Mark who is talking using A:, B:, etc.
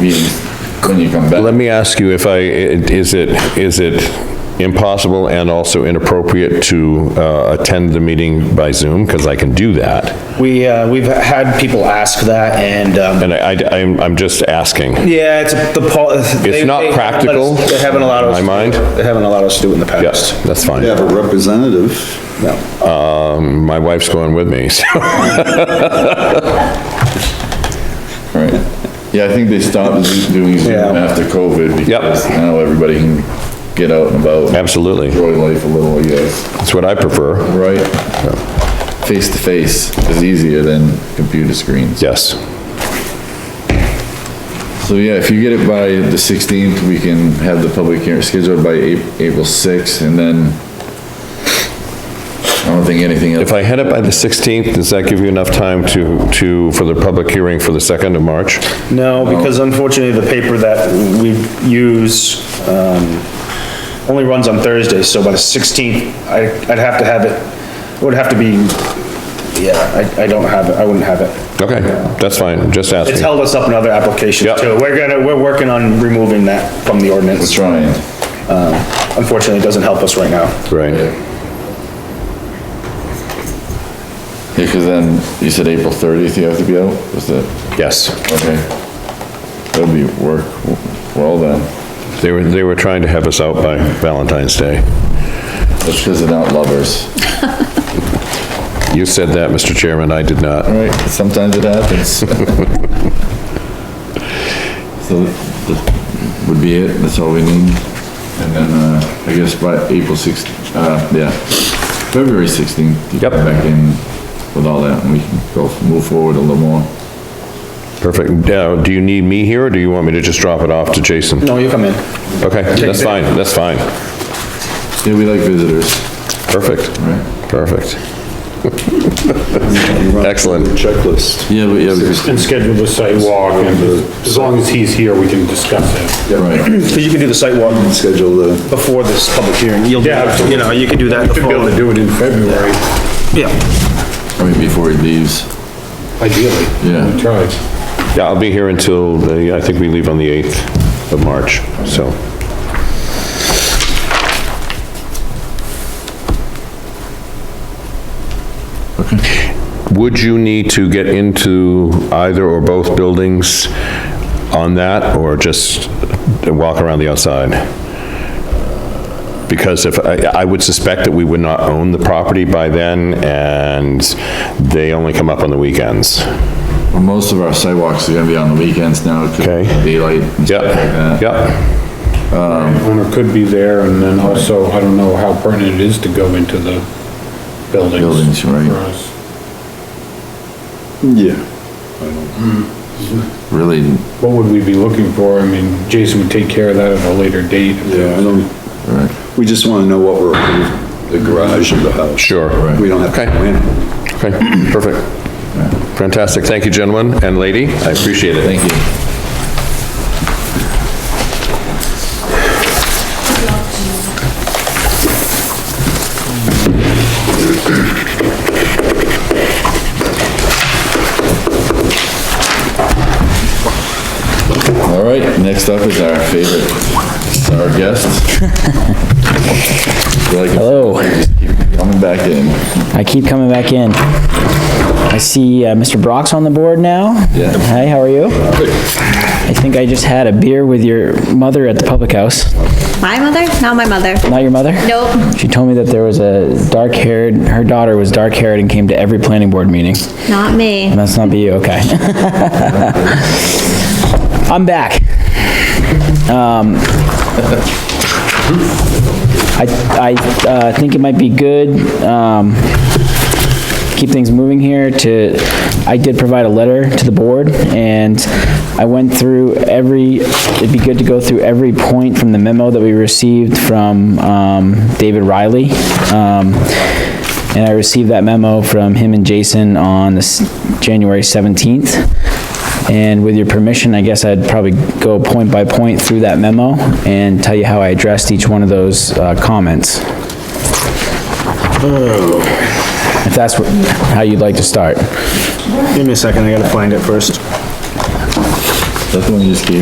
A: you, when you come
B: Let
A: back.
B: me ask you if I, is it, is it impossible and also inappropriate to uh, attend the meeting by Zoom? Because I can do that.
C: We, uh, we've had people ask that and, um,
B: And I, I- I'm, I'm just asking.
C: yeah, it's the pol. It's
B: not practical,
C: They haven't allowed us.
B: in my mind.
C: They haven't allowed us to do it in the past.
B: Yes, that's fine.
D: They have a representative.
C: No.
B: Um, My wife's going with me, so.
A: Right. Yeah, I think they stopped do- doing Zoom
C: Yeah.
A: after COVID because now everybody can get out and about. and
B: Absolutely.
A: Enjoy life a little, I guess.
B: That's what I prefer.
A: Right? Face to face is easier than computer screens.
B: Yes.
A: So yeah, if you get it by the 16th, we can have the public hearing scheduled by Ap- April 6th and then I don't think anything else.
B: If I head up by the 16th, does that give you enough time to, to, for the public hearing for the 2nd of March?
C: No, because unfortunately, the paper that we use, um, only runs on Thursdays, so by the sixteenth, I, I'd have to have it, it would have to be, yeah, I, I don't have it, I wouldn't have it.
B: Okay, that's fine, just
C: It's
B: asking.
C: held us up in other
B: Yep.
C: applications too. We're gonna, we're working on removing that from the
A: We're
C: ordinance.
A: trying.
C: Unfortunately, it doesn't help us right now.
B: Right.
A: Yeah, because then, you said April 30th you have to be out, was that,
B: Yes.
A: okay. That'll be work, well then,
B: They were, they were trying to have us out by Valentine's Day.
A: that's because they're not lovers,
B: You said that, Mr. Chairman, I did not.
A: All right? Sometimes it happens. So that would be it, that's all we need. And then, uh, I guess by April 6th, uh, yeah, February 16th. you
B: Yep.
A: come Back in with all that, and we can go, move forward a little more.
B: Perfect. Now, do you need me here, or do you want me to just drop it off to Jason?
C: No, you come in.
B: Okay, that's fine, that's fine.
A: Yeah, we like visitors,
B: Perfect,
A: right?
B: perfect. Excellent.
D: Checklist.
A: Yeah, but yeah, because,
E: And schedule the sidewalk, and as long as he's here, we can discuss it.
A: right,
C: Because you can do the site walk
D: Schedule the,
C: before this public hearing. You'll, do-
E: Yeah, absolutely.
C: you know, you can do that
E: Should be able to
C: before.
E: do it in February,
C: Yeah,
A: I mean, before he leaves,
E: ideally.
A: Yeah.
E: We Try.
B: Yeah, I'll be here until, the I think we leave on the 8th of March, so. Would you need to get into either or both buildings on that, or just walk around the outside? Because if, I I would suspect that we would not own the property by then, and they only come up on the weekends.
A: well, most of our sidewalks are gonna be on the weekends now, 'cause
B: Okay.
A: daylight and stuff like
B: Yep,
A: that.
B: yep.
E: Owner could be there, and then also, I don't know how pertinent it is to go into the buildings.
A: Buildings, right.
E: for us.
D: yeah,
A: Really,
E: What would we be looking for? I mean, Jason would take care of that at a later date.
D: yeah, I don't,
A: right,
D: we just want to know what we're, approving, the garage of the house.
B: Sure.
D: We don't have to
B: Okay.
D: go in.
B: Okay, perfect. Fantastic. Thank you, gentlemen and lady. I appreciate it.
A: thank you. All right, next up is our favorite, our guest.
F: Hello.
A: Coming back in.
F: I keep coming back in. I see uh, Mr. Brock's on the board now.
A: Yeah.
F: Hi, how are you? I think I just had a beer with your mother at the public house.
G: My mother? Not my mother.
F: Not your mother?
G: Nope,
F: She told me that there was a dark-haired, her daughter was dark-haired and came to every planning board meeting.
G: not me.
F: Must not be you, okay. I'm back. Um, I, I uh, think it might be good, um, keep things moving here to, I did provide a letter to the board, and I went through every, it'd be good to go through every point from the memo that we received from um, David Riley. Um, and I received that memo from him and Jason on this January 17th. And with your permission, I guess I'd probably go point by point through that memo and tell you how I addressed each one of those uh, comments. If that's what- how you'd like to start.
C: give me a second, I gotta find it first.
A: That's the one you just gave